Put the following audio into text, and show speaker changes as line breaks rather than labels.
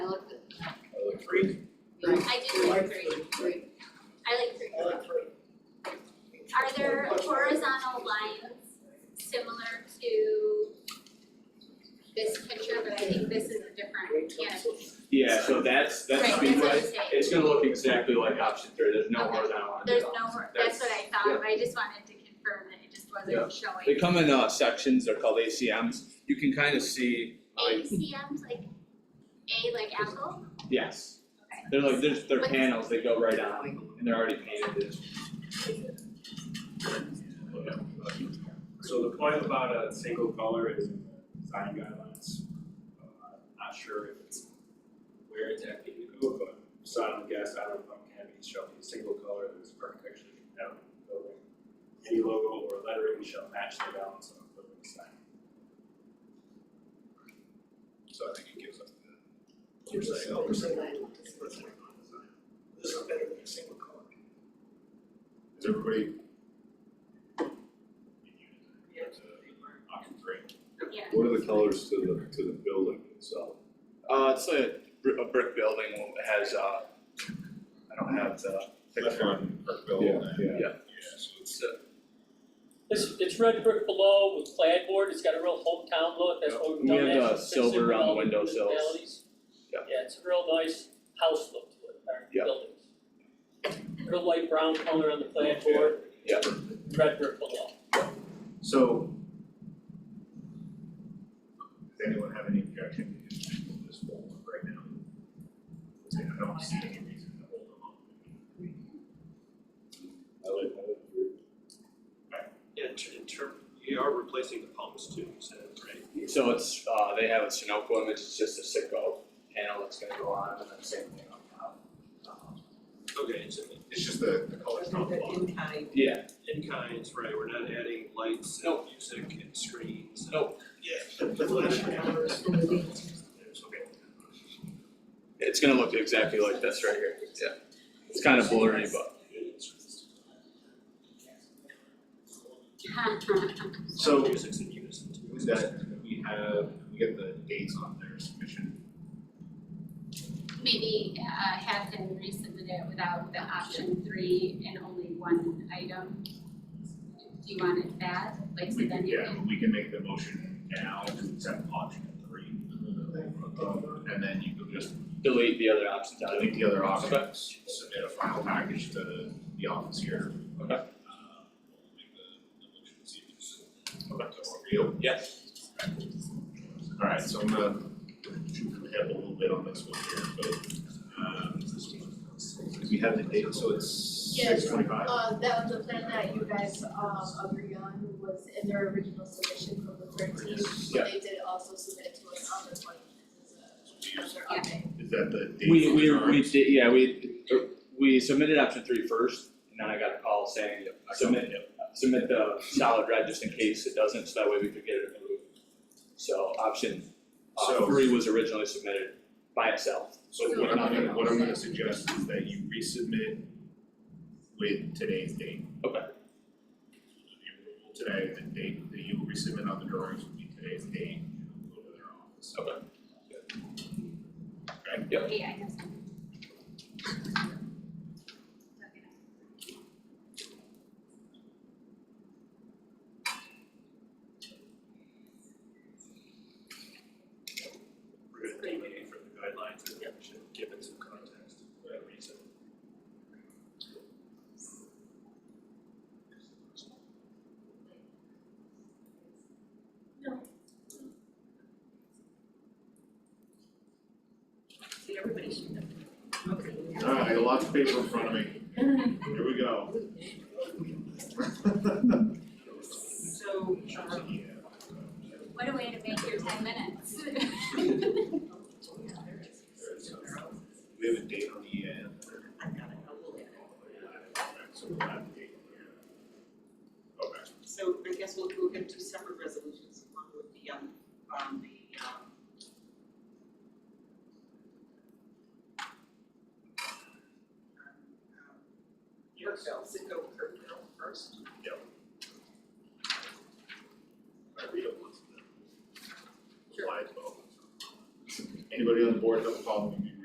three?
I do like three,
Three.
I like three.
I like three.
Are there horizontal lines similar to this picture, but I think this is a different canopy?
Yeah, so that's, that's
Right, that's what
speedway,
I'm saying.
it's gonna look exactly like option three, there's no
Okay.
horizontal line at
There's
all.
no, hor- that's what I thought,
yeah.
but I just wanted to confirm that it just
Yeah.
wasn't
They
showing.
come in uh sections, they're called ACMs, you can kind of see, like,
ACMs, like, A like apple?
yes,
Okay.
they're like, there's, they're
But-
panels, they go right on, and they're already painted.
So the point about a single color is in the design guidelines. Uh, Not sure if it's where it's actually going to go, but so I would guess, I don't know, canopies shall be a single color, there's architecture down in the building. Any logo or lettering shall match the balance of the building sign.
So I think it gives us the.
Here's a single percent. This
Is
is better than a single color.
everybody?
Yeah.
Option three.
Yeah.
What are the colors to the, to the building itself?
Uh, it's like a brick, a brick building, it has uh, I don't have the picture,
Yeah, yeah.
Yeah. it's uh,
It's, it's red brick below with clad board, it's got a real hometown look, that's what we've
We
done
have the
that since
silver
we've
on the
all been
windowsills.
municipalities.
Yeah.
Yeah, it's a real nice house look to it, our
Yeah.
buildings. Real light brown color on the clad board.
Yeah.
Red brick below.
So. Does anyone have any objection to just pull this forward right now? I don't see any reason to hold them up. I like, I like your.
Yeah, in ter- in term, you are replacing the palms too, you said, right?
so it's, uh, they have a Sunoco image, it's just a sicko panel that's gonna go on, and then same thing on top. Um,
Okay, it's
It's just the, the colors not blocked.
Yeah,
in kinds, right, we're not adding lights and
No.
music and screens. and-
No.
The flash cameras.
It's okay.
It's gonna look exactly like this right here, yeah. It's kind of blurry, but.
So-
Music's in unison too.
Is that, we have, we get the dates on their submission.
Maybe, uh, have them resubmit it without the option three and only one item? Do you want it that, like, so
We
then
can,
you
yeah,
can,
we can make the motion now to accept option three. Um, And then you can just
Delete the other options out of it.
delete the other options, submit a final package to the office here.
Okay.
Uh, we'll Make the, the motion, see if it's. Real.
Yes.
Alright, so I'm gonna shoot from the hip a little bit on this one here, but, um, we have the date, so it's
Yes.
six twenty-five.
Uh, that was the plan that you guys, um, agreed on was in their original submission from the thirteenth.
Yeah.
They did also submit it to us on the twentieth as a, as our update.
Is that the date?
We,
on
we,
the drawing?
we did, yeah, we, uh, we submitted option three first, and then I got a call saying, submit, submit the solid red just in case it doesn't, so that way we could get it approved. So option, uh,
So-
three was originally submitted by itself.
So what I'm gonna, what I'm gonna suggest is that you resubmit with today's date.
Okay.
Today, the date that you will resubmit on the drawings will be today's date, and we'll go to their office.
Okay.
yeah, I guess. Okay.
We're gonna deviate from the guidelines, and we should give it some context, for that reason.
Alright, I got lots of paper in front of me, here we go.
So, um,
What a way to make your ten minutes.
We have a date on the end.
I've got a couple there.
So we'll have the date on the end. Okay,
So I guess we'll, we'll get two separate resolutions, one would be on, on the, um, um, Kirkville, Citgo Kirkville first.
I read it once. Sure. Anybody on the board have a problem with me?